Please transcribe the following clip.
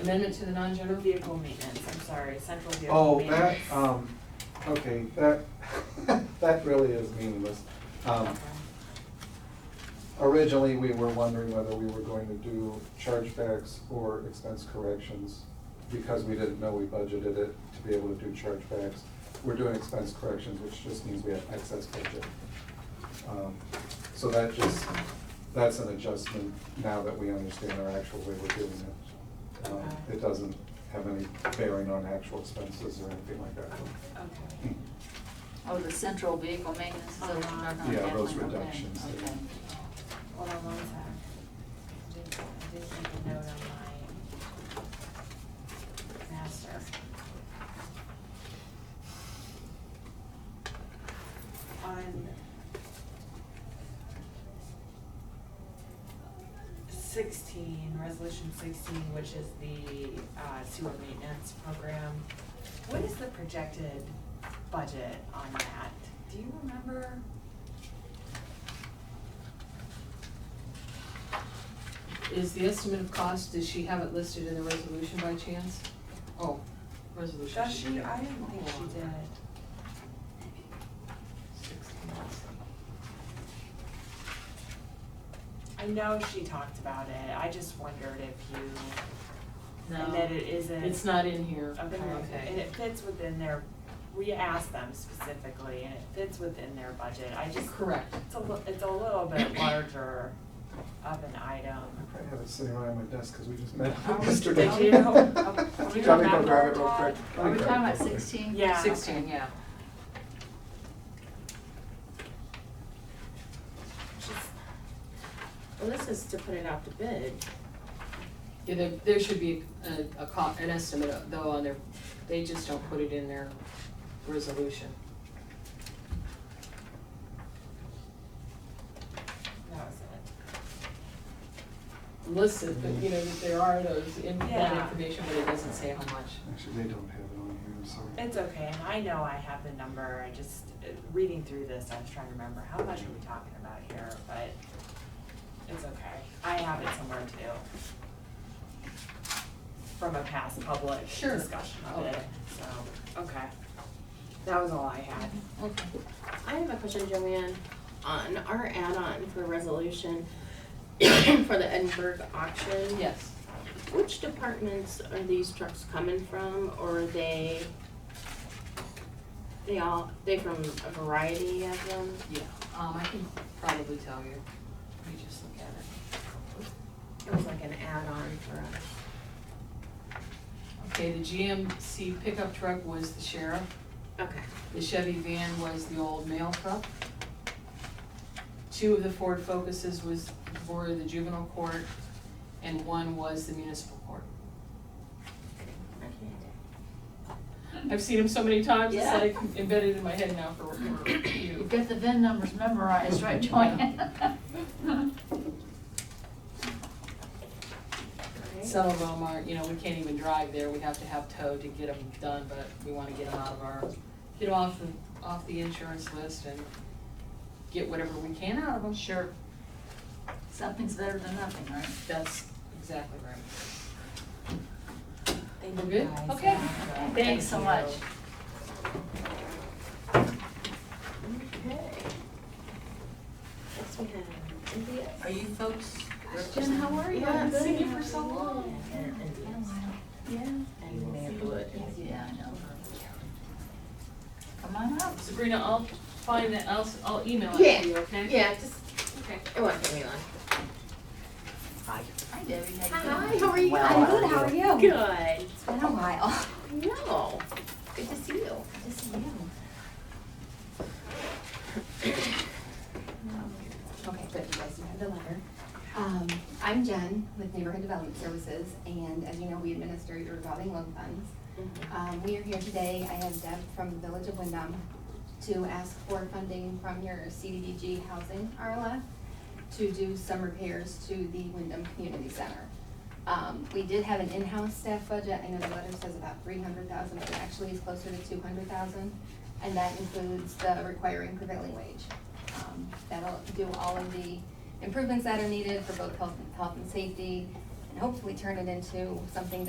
amendment to the non-general vehicle maintenance, I'm sorry, central vehicle Oh, that, maintenance. um, okay, that, that really is meaningless. Um, Originally, we were wondering whether we were going to do chargebacks or expense corrections because we didn't know we budgeted it to be able to do chargebacks. We're doing expense corrections, which just means we have excess budget. Um, So that just, that's an adjustment now that we understand our actual way we're doing it. Um, Okay. It doesn't have any bearing on actual expenses or anything like that. Hmm. Okay. Oh, the central vehicle maintenance, those are not Uh-huh. Yeah, definitely, those okay, reductions. Okay. Hold on one sec. I did, I did make a note on my master. On sixteen, resolution sixteen, which is the uh, sewer maintenance program. What is the projected budget on that? Do you remember? Is the estimate of cost, does she have it listed in the resolution by chance? Oh, resolution. Does she, I didn't think she did. I know she talked about it, I just wondered if you, and that No, it isn't. it's not in here. Okay, and it fits within their, we asked them specifically, and it fits within their budget, I just, Correct. it's a, li- it's a little bit larger of an item. I probably have it sitting right on my desk because we just met Oh, yesterday. did you? Oh, oh, do you Tell me to go remember grab it real that? quick. Are we talking about sixteen? Yeah. Sixteen, yeah. Just- Well, this is to put it out to bid. Yeah, there, there should be a, a co- an estimate though on their, they just don't put it in their resolution. That was it. Listed, but you know, that there are those, in that Yeah. information, but it doesn't say how much. Actually, they don't have it on here, I'm sorry. It's okay, and I know I have the number, I just, uh, reading through this, I was trying to remember, how much are we talking about here, but it's okay, I have it somewhere too. From a past public Sure. discussion of it, Okay. so, okay. That was all I had. Okay. I have a question, Joanne, on our add-on for resolution for the Edinburgh auction. Yes. Which departments are these trucks coming from, or are they, they all, they from a variety of them? Yeah, um, I can probably tell you. Let me just look at it. It was like an add-on for us. Okay, the GMC pickup truck was the sheriff, Okay, the Chevy van was the old mail truck. Two of the Ford Focuses was, were the juvenile court, and one was the municipal court. I've seen them so many times, it's Yeah. like embedded in my head now for, for you. You've got the VIN numbers memorized, right, Joanne? Some of them are, you know, we can't even drive there, we have to have tow to get them done, but we wanna get them out of our, get them off the, off the insurance list and get whatever we can out of them. Sure. Something's better than nothing, right? That's exactly right. Thank We're you good? guys. Okay. Thank you. Thanks so much. okay. Next we have India. Are you folks? Jen, how are you? Yeah, I've seen good. you for so long. And Yeah, I know. Come on up. Sabrina, I'll find that, I'll, s- I'll email it Yeah. to you, okay? Yeah, just, okay, it won't take me long. Hi Debbie, how you Hi, doing? how are you? Well, I'm good, how are Oh. you? Good. It's been a while. No, good to see you. Good to see you. Um, Okay, good, you guys do have the letter. Um, I'm Jen with Neighborhood Development Services, and as you know, we administer your revolving loan funds. Um, we are here today, I have Deb from the Village of Wyndham to ask for funding from your CDBG Housing RLF to do some repairs to the Wyndham Community Center. Um, we did have an in-house staff budget, I know the letter says about three hundred thousand, but it actually is closer to two hundred thousand, and that includes the requiring prevailing wage. Um, that'll do all of the improvements that are needed for both health, health and safety, and hopefully turn it into something